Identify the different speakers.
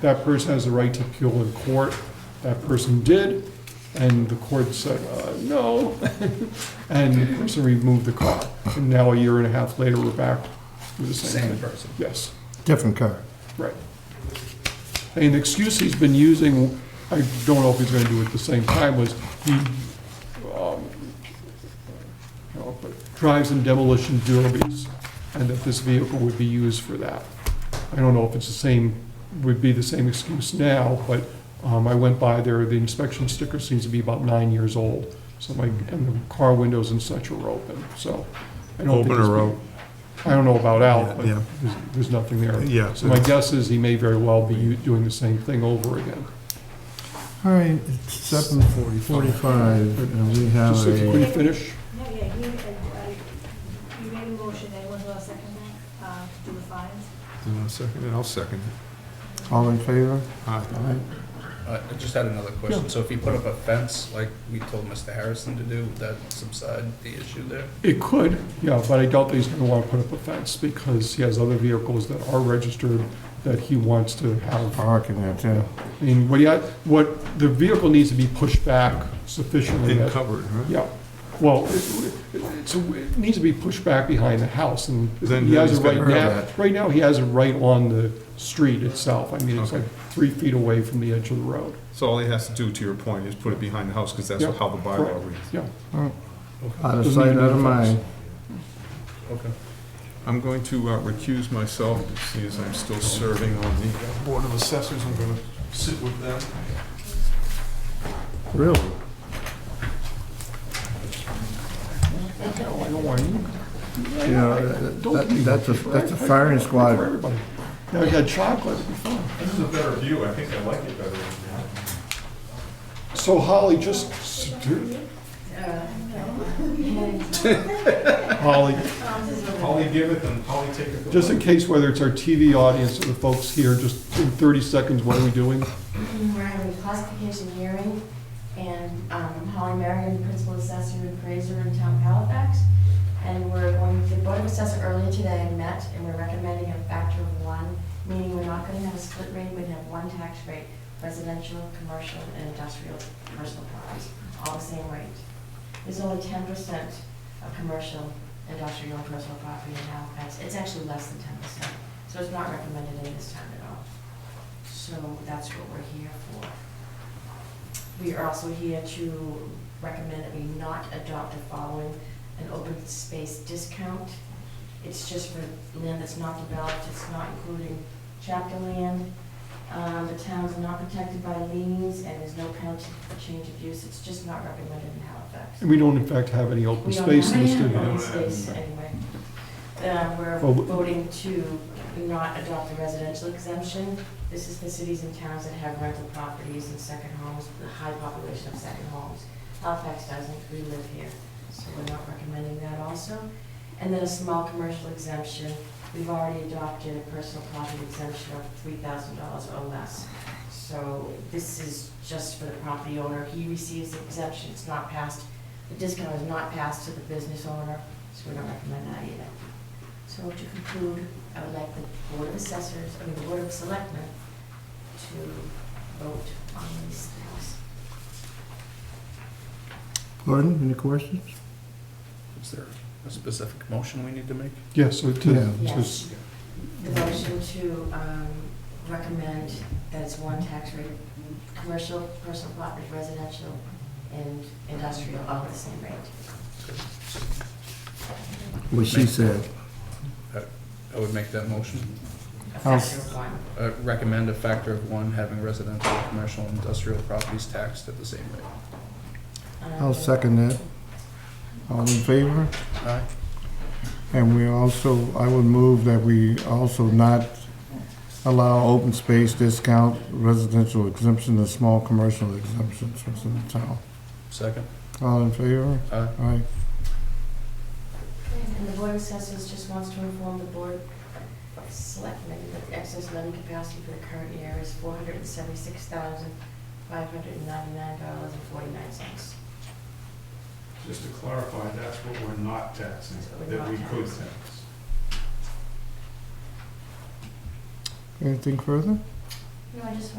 Speaker 1: That person has the right to appeal in court. That person did, and the court said, uh, no. And the person removed the car. And now a year and a half later, we're back with the same
Speaker 2: Same
Speaker 1: thing.
Speaker 2: person.
Speaker 1: Yes,
Speaker 3: Different car.
Speaker 1: right. An excuse he's been using, I don't know if he's gonna do it at the same time, was he, um, you know, but drives in demolition derbies, and that this vehicle would be used for that. I don't know if it's the same, would be the same excuse now, but um, I went by there, the inspection sticker seems to be about nine years old. So my, and the car windows and such are open, so. I don't think
Speaker 4: Open or
Speaker 1: it's- I don't know about out, but
Speaker 4: Yeah, yeah.
Speaker 1: there's, there's nothing there.
Speaker 4: Yeah.
Speaker 1: So my guess is he may very well be u- doing the same thing over again.
Speaker 3: All right, it's seven forty-five, and we have
Speaker 1: Just if you
Speaker 3: a,
Speaker 1: could finish,
Speaker 5: No, yeah, he, uh, uh, you made a motion, anyone who else second that, uh, to do the fines?
Speaker 4: Do you want a second? And I'll second it.
Speaker 3: all in favor?
Speaker 4: Aye.
Speaker 3: All right.
Speaker 2: Uh, I just had another question. So if you put up a fence like we told Mr. Harrison to do, would that subside the issue there?
Speaker 1: it could, yeah, but I doubt that he's gonna wanna put up a fence because he has other vehicles that are registered that he wants to have
Speaker 3: Parking there too.
Speaker 1: I mean, what, he had- what, the vehicle needs to be pushed back sufficiently.
Speaker 4: And
Speaker 1: that-
Speaker 4: covered, right?
Speaker 1: Yeah, well, it- it- it's, it needs to be pushed back behind the house, and
Speaker 4: Then
Speaker 1: he has
Speaker 4: he's
Speaker 1: it right
Speaker 4: gotta
Speaker 1: now.
Speaker 4: have that.
Speaker 1: Right now, he has it right on the street itself, I mean, it's
Speaker 4: Okay.
Speaker 1: like three feet away from the edge of the road.
Speaker 4: So all he has to do, to your point, is put it behind the house, because that's
Speaker 1: Yeah,
Speaker 4: how the bylaw
Speaker 1: correct.
Speaker 4: reads.
Speaker 1: Yeah,
Speaker 3: Out of sight, Uh, out of mind.
Speaker 2: Okay.
Speaker 4: I'm going to uh, recuse myself, see as I'm still serving on the Board of Assessors, I'm going to sit with them.
Speaker 3: Really?
Speaker 1: no, I don't want you.
Speaker 3: You know, that- that- that's a, that's a firing
Speaker 1: For
Speaker 3: squad.
Speaker 1: everybody. Now you got chocolate, it'd be fun.
Speaker 4: This is a better view, I think I like it better.
Speaker 1: So Holly, just, s- do- Holly,
Speaker 4: Holly give it, then Holly take it.
Speaker 1: just in case, whether it's our TV audience or the folks here, just in 30 seconds, what are we doing?
Speaker 6: We're having a classification hearing, and um, Holly Marion, Principal Assessor and Appraiser in Town Halifax. And we're going, the Board of Assessor earlier today met, and we're recommending a factor of one, meaning we're not going to have a split rate, we're going to have one tax rate, residential, commercial, and industrial personal properties, all the same rate. There's only ten percent of commercial, industrial, and personal property in Halifax. It's actually less than ten percent, so it's not recommended in this town at all. So that's what we're here for. We are also here to recommend that we not adopt or following an open space discount. It's just for land that's not developed, it's not including chapter land. Um, The towns are not protected by liens, and there's no penalty for change of use, it's just not recommended in Halifax.
Speaker 1: And we don't in fact have any open
Speaker 6: We don't
Speaker 1: space
Speaker 6: have
Speaker 1: in the
Speaker 6: any
Speaker 1: studio. Oh,
Speaker 6: open space anyway. Uh, We're
Speaker 1: Well, we-
Speaker 6: voting to not adopt the residential exemption. This is for cities and towns that have rental properties and second homes, the high population of second homes. Halifax doesn't, we live here, so we're not recommending that also. And then a small commercial exemption, we've already adopted a personal property exemption of three thousand dollars or less. So this is just for the property owner, he receives the exemption, it's not passed, the discount is not passed to the business owner, so we don't recommend that either. So to conclude, I would like the Board of Assessors, I mean, the Board of Selectmen to vote on these things.
Speaker 3: Gordon, any questions?
Speaker 2: Is there a specific motion we need to make?
Speaker 1: Yeah, so to,
Speaker 3: Yeah.
Speaker 1: to s-
Speaker 6: Yes. The motion to um, recommend that it's one tax rate, commercial, personal property, residential, and industrial, all at the same rate.
Speaker 3: What she said.
Speaker 2: I would make that motion.
Speaker 6: A
Speaker 3: I'll-
Speaker 6: factor of one.
Speaker 2: Uh, Recommend a factor of one, having residential, commercial, and industrial properties taxed at the same rate.
Speaker 3: I'll second that. All in favor?
Speaker 2: Aye.
Speaker 3: And we also, I would move that we also not allow open space discount, residential exemption, and small commercial exemptions within the town.
Speaker 2: Second?
Speaker 3: All in favor?
Speaker 2: Aye.
Speaker 3: Aye.
Speaker 6: And the Board of Assessors just wants to inform the Board of Selectmen that the excess levy capacity for the current year is four hundred and seventy-six thousand, five hundred and ninety-nine dollars and forty-nine cents.
Speaker 7: Just to clarify, that's what we're not taxing,
Speaker 6: That's what we're
Speaker 7: that
Speaker 6: not
Speaker 7: we could
Speaker 6: taxing.
Speaker 7: tax.
Speaker 3: Anything further?
Speaker 6: No, I just